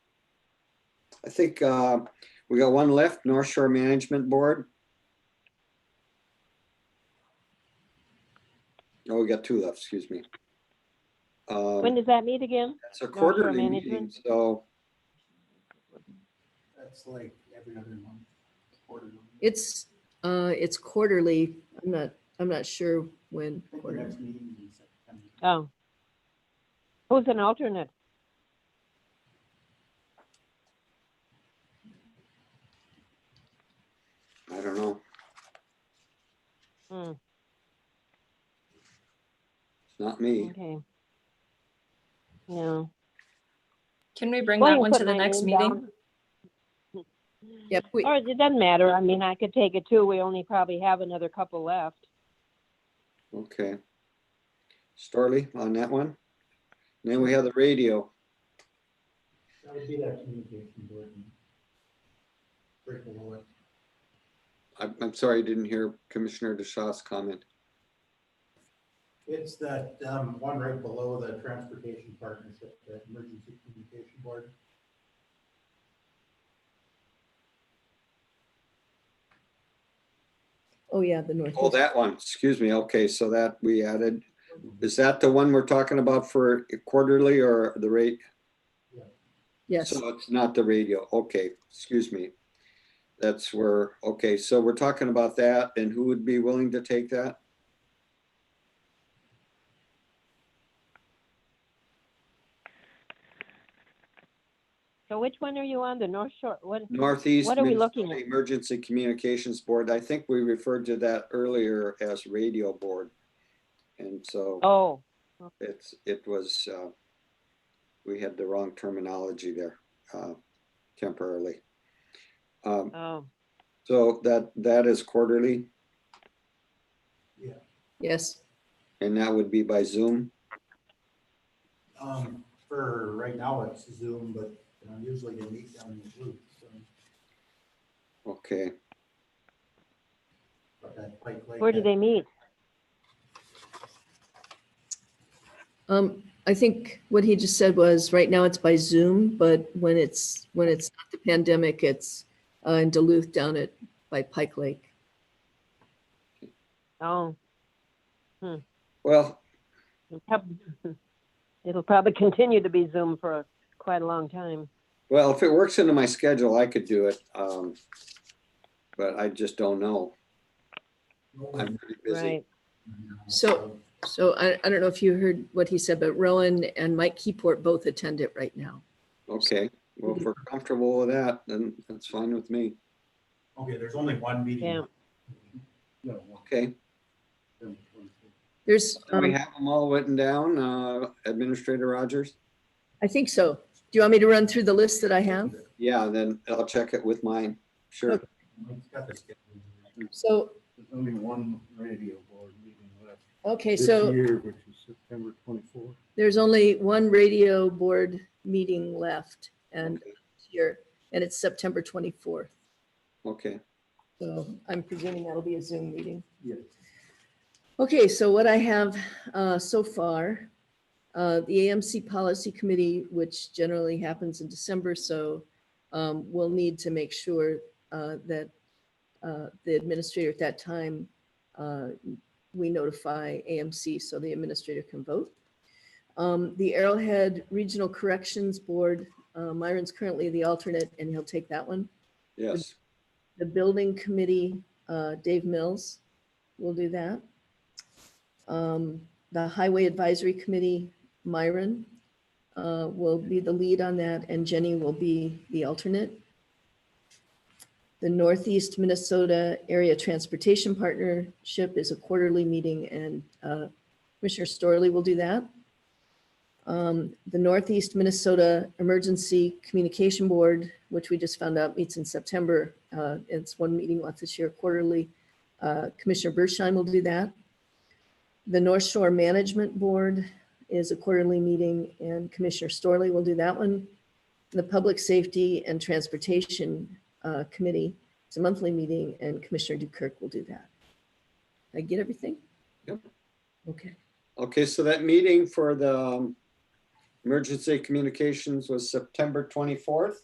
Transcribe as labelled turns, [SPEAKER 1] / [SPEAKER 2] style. [SPEAKER 1] I think uh, we got one left, North Shore Management Board. Oh, we got two left, excuse me. Um,
[SPEAKER 2] When does that meet again?
[SPEAKER 1] It's a
[SPEAKER 2] North Shore
[SPEAKER 1] quarterly meeting,
[SPEAKER 2] Management?
[SPEAKER 1] so
[SPEAKER 3] That's like every other month. quarterly.
[SPEAKER 4] It's, uh, it's quarterly. I'm not, I'm not sure when.
[SPEAKER 3] I think the
[SPEAKER 4] quarterly.
[SPEAKER 3] next meeting is in September.
[SPEAKER 2] Oh. Who's an alternate?
[SPEAKER 1] I don't know.
[SPEAKER 2] Hmm,
[SPEAKER 1] It's not me.
[SPEAKER 2] okay. No.
[SPEAKER 5] Can we bring
[SPEAKER 2] Well,
[SPEAKER 5] that
[SPEAKER 2] you
[SPEAKER 5] one
[SPEAKER 2] put
[SPEAKER 5] to the
[SPEAKER 2] my
[SPEAKER 5] next
[SPEAKER 2] name
[SPEAKER 5] meeting?
[SPEAKER 2] down.
[SPEAKER 4] Yep, we,
[SPEAKER 2] Or it doesn't matter. I mean, I could take it too. We only probably have another couple left.
[SPEAKER 1] Okay. Starley on that one. And then we have the radio.
[SPEAKER 3] That would be that communication board. meeting. Right below it.
[SPEAKER 1] I'm, I'm sorry, I didn't hear Commissioner DeShaw's comment.
[SPEAKER 3] It's that um, one right below the transportation partnership, the emergency communication board.
[SPEAKER 4] oh yeah, the North.
[SPEAKER 1] Oh, that one, excuse me. Okay, so that we added, is that the one we're talking about for quarterly or the rate?
[SPEAKER 4] Yes,
[SPEAKER 1] So it's not the radio. Okay, excuse me. That's where, okay, so we're talking about that and who would be willing to take that?
[SPEAKER 2] So which one are you on? The North Shore, what?
[SPEAKER 1] Northeast
[SPEAKER 2] What are we looking
[SPEAKER 1] Minnesota
[SPEAKER 2] at?
[SPEAKER 1] Emergency Communications Board. I think we referred to that earlier as radio board. And so
[SPEAKER 2] Oh,
[SPEAKER 1] it's, it was, uh, we had the wrong terminology there, uh, temporarily. Um,
[SPEAKER 2] oh,
[SPEAKER 1] so that, that is quarterly
[SPEAKER 4] yes.
[SPEAKER 1] and that would be by Zoom.
[SPEAKER 3] Um, For right now, it's Zoom, but you know, usually they meet down in the loop. so,
[SPEAKER 1] Okay,
[SPEAKER 3] but that Pike Lake-
[SPEAKER 2] where do they meet?
[SPEAKER 4] Um, I think what he just said was, right now it's by Zoom, but when it's, when it's not the pandemic, it's uh, in Duluth down at, by Pike Lake.
[SPEAKER 2] Oh,
[SPEAKER 1] well,
[SPEAKER 2] it'll prob- it'll probably continue to be Zoom for quite a long time.
[SPEAKER 1] Well, if it works into my schedule, I could do it. Um, but I just don't know. I'm pretty busy.
[SPEAKER 2] Right.
[SPEAKER 4] So- So I, I don't know if you heard what he said, but Rowan and Mike Keyport both attend it right now.
[SPEAKER 1] Okay, well, if we're comfortable with that, then that's fine with me.
[SPEAKER 3] Okay, there's only one meeting.
[SPEAKER 2] Yeah.
[SPEAKER 3] No,
[SPEAKER 1] Okay,
[SPEAKER 3] one.
[SPEAKER 4] There's,
[SPEAKER 1] do we
[SPEAKER 4] um,
[SPEAKER 1] have them all written down, uh, Administrator Rogers?
[SPEAKER 4] I think so. Do you want me to run through the list that I have?
[SPEAKER 1] Yeah, then I'll check it with mine. Sure.
[SPEAKER 3] Mike's got the schedule.
[SPEAKER 4] So,
[SPEAKER 6] There's only one radio board meeting left
[SPEAKER 4] okay,
[SPEAKER 6] this
[SPEAKER 4] so
[SPEAKER 6] year, which is September 24th.
[SPEAKER 4] there's only one radio board meeting left and
[SPEAKER 1] Okay.
[SPEAKER 4] here, and it's September 24th.
[SPEAKER 1] Okay,
[SPEAKER 4] So I'm presuming that'll be a Zoom meeting.
[SPEAKER 6] Yes.
[SPEAKER 4] Okay, so what I have uh, so far, uh, the AMC Policy Committee, which generally happens in December, so um, we'll need to make sure uh, that uh, the administrator at that time, uh, we notify AMC so the administrator can vote. Um, The Arrowhead Regional Corrections Board, uh, Myron's currently the alternate, and he'll take that one
[SPEAKER 1] yes,
[SPEAKER 4] the building committee, uh, Dave Mills will do that. Um, The highway advisory committee, Myron uh, will be the lead on that, and Jenny will be the alternate. The Northeast Minnesota Area Transportation Partnership is a quarterly meeting, and uh, Commissioner Storley will do that. Um, The Northeast Minnesota Emergency Communication Board, which we just found out meets in September. uh, It's one meeting left this year quarterly. Uh, Commissioner Bershine will do that. The North Shore Management Board is a quarterly meeting and Commissioner Storley will do that one. The Public Safety and Transportation uh, Committee is a monthly meeting and Commissioner Dukirk will do that. Did I get everything?
[SPEAKER 1] Yep.
[SPEAKER 4] Okay.
[SPEAKER 1] okay, so that meeting for the um, Emergency Communications was September twenty-fourth?